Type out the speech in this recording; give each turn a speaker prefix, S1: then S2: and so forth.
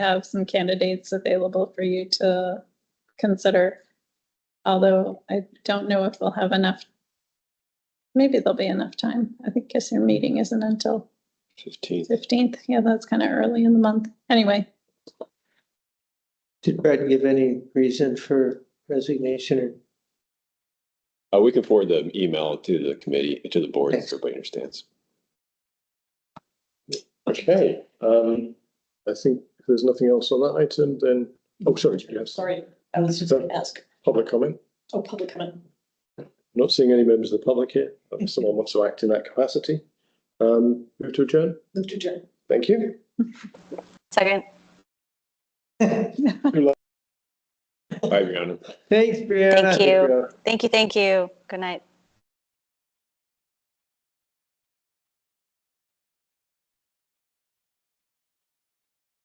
S1: have some candidates available for you to consider. Although I don't know if we'll have enough. Maybe there'll be enough time. I think, guess your meeting isn't until
S2: Fifteenth.
S1: fifteenth. Yeah, that's kind of early in the month. Anyway,
S3: Did Brad give any reason for resignation or?
S2: Uh, we can forward the email to the committee, to the board, so
S3: Thanks.
S2: everybody understands.
S4: Okay, um, I think if there's nothing else on that item, then, oh, sorry, yes,
S5: Sorry, I was just going to ask,
S4: public comment.
S5: oh, public comment.
S4: Not seeing any members of the public here, if someone wants to act in that capacity. Um, move to adjourn,
S5: Move to adjourn.
S4: thank you.
S6: Second.
S2: Bye, Brianna.
S3: Thanks, Brianna.
S6: Thank you. Thank you, thank you. Good night.